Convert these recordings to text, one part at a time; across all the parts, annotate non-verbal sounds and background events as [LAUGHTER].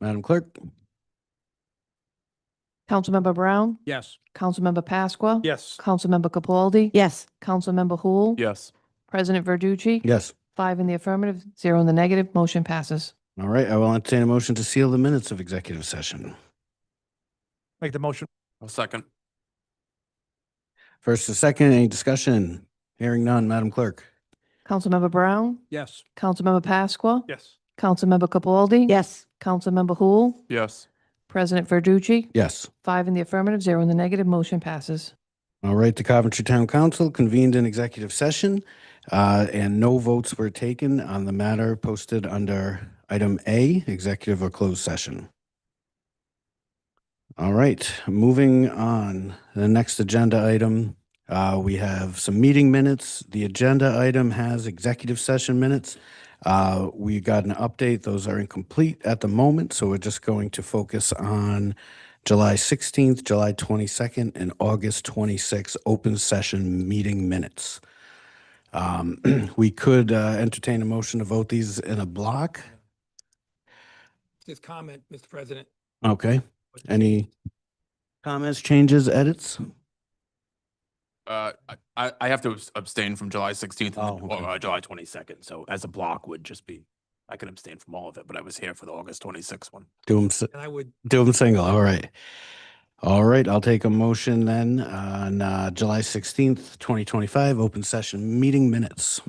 Madam Clerk? Councilmember Brown, Yes. Councilmember Pasqua. Yes. Councilmember Capaldi. Yes. Councilmember Hul. Yes. President Verducci. Yes. Five in the affirmative, zero in the negative, motion passes. All right, I will entertain a motion to seal the minutes of executive session. Make the motion. I'll second. First and second, any discussion? Hearing none, Madam Clerk? Councilmember Brown, Yes. Councilmember Pasqua. Yes. Councilmember Capaldi. Yes. Councilmember Hul. Yes. President Verducci. Yes. Five in the affirmative, zero in the negative, motion passes. All right, the Coventry Town Council convened an executive session, uh, and no votes were taken on the matter posted under item A, executive or closed session. All right, moving on, the next agenda item, uh, we have some meeting minutes. The agenda item has executive session minutes. Uh, we got an update, those are incomplete at the moment, so we're just going to focus on July 16th, July 22nd, and August 26th, open session meeting minutes. Um, [CLEARS THROAT] We could uh, entertain a motion to vote these in a block. Just comment, Mr. President. Okay, any comments, changes, edits? Uh, I- I, I have to abs- abstain from July sixteenth Oh, and okay. uh, July twenty-second, so as a block would just be, I can abstain from all of it, but I was here for the August twenty-sixth one. Do them, And I would, do them single, all right. All right, I'll take a motion then on uh, July 16th, 2025, open session meeting minutes.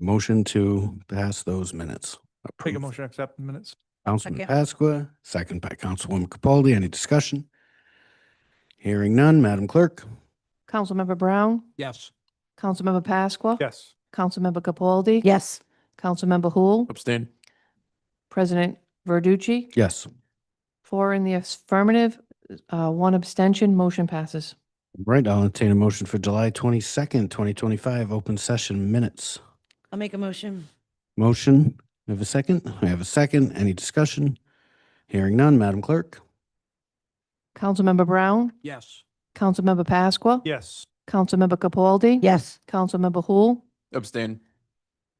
Motion to pass those minutes. Make a Approve. motion, accept the minutes. Councilman Second. Pasqua, second by Councilwoman Capaldi. Any discussion? Hearing none, Madam Clerk? Councilmember Brown, yes, Councilmember Pasqua. Yes. Councilmember Capaldi. Yes. Councilmember Hul. Abstain? President Verducci. Yes. Four in the affirmative, uh, one abstention, motion passes. Right, I'll entertain a motion for July twenty-second, twenty twenty-five, open session minutes. I'll make a motion. Motion, we have a second? We have a second. Any discussion? Hearing none, Madam Clerk? Councilmember Brown, yes, Councilmember Pasqua. Yes. Councilmember Capaldi. Yes. Councilmember Hul. Abstain?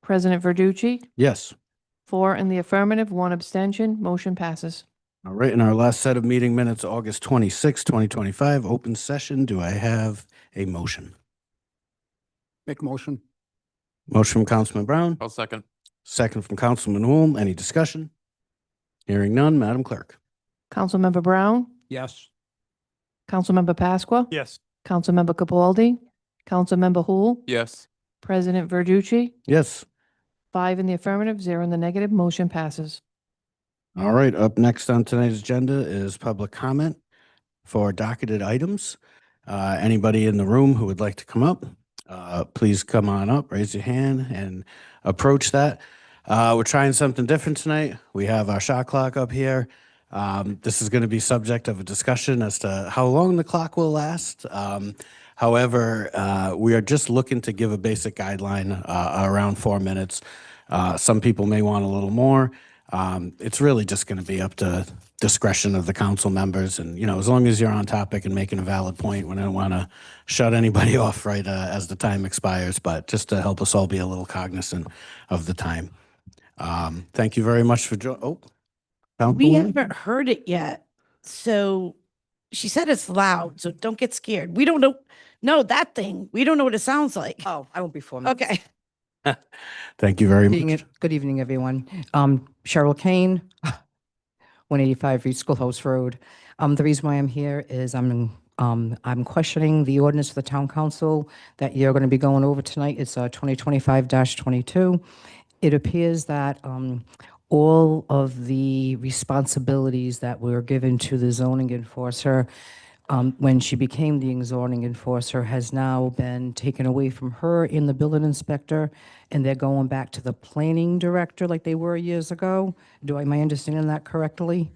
President Verducci. Yes. Four in the affirmative, one abstention, motion passes. All right, in our last set of meeting minutes, August twenty-sixth, twenty twenty-five, open session, do I have a motion? Make motion. Motion from Councilman Brown? I'll second. Second from Councilman Holm. Any discussion? Hearing none, Madam Clerk. Councilmember Brown, yes, Councilmember Pasqua. Yes. Councilmember Capaldi. Councilmember Hul. Yes. President Verducci. Yes. Five in the affirmative, zero in the negative, motion passes. All right, up next on tonight's agenda is public comment for docketed items. Uh, Anybody in the room who would like to come up, uh, please come on up, raise your hand and approach that. Uh, We're trying something different tonight. We have our shot clock up here. Um, This is going to be subject of a discussion as to how long the clock will last. Um, However, uh, we are just looking to give a basic guideline uh, around four minutes. Uh, Some people may want a little more. Um, It's really just going to be up to discretion of the council members. And, you know, as long as you're on topic and making a valid point, we don't want to shut anybody [LAUGHS] off right uh, as the time expires, but just to help us all be a little cognizant of the time. Um, Thank you very much for, jo- oh. We Councilwoman? haven't heard it yet. So she said it's loud, so don't get scared. We don't know, no, that thing. We don't know what it sounds like. Oh, I won't be formal. Okay. Thank you very much. Good evening, everyone. Um, Cheryl Kane, [LAUGHS] 185 Reed Schoolhouse Road. Um, The reason why I'm here is I'm, um, I'm questioning the ordinance of the town council that you're going to be going over tonight. It's uh, 2025-22. It appears that um, all of the responsibilities that were given to the zoning enforcer um, when she became the zoning enforcer has now been taken away from her in the building inspector, and they're going back to the planning director like they were years ago. Do I, am I understanding that correctly?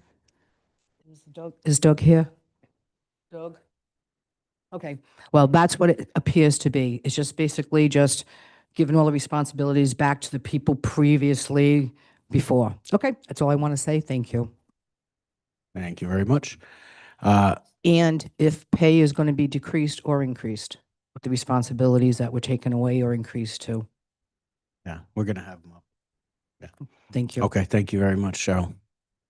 Is Doug- Is Doug here? Doug? Okay, well, that's what it appears to be. It's just basically just giving all the responsibilities back to the people previously before. Okay, that's all I want to say. Thank you. Thank you very much. Uh, And if pay is going to be decreased or increased, with the responsibilities that were taken away or increased to. Yeah, we're going to have them up. Thank you. Okay, thank you very much, Cheryl.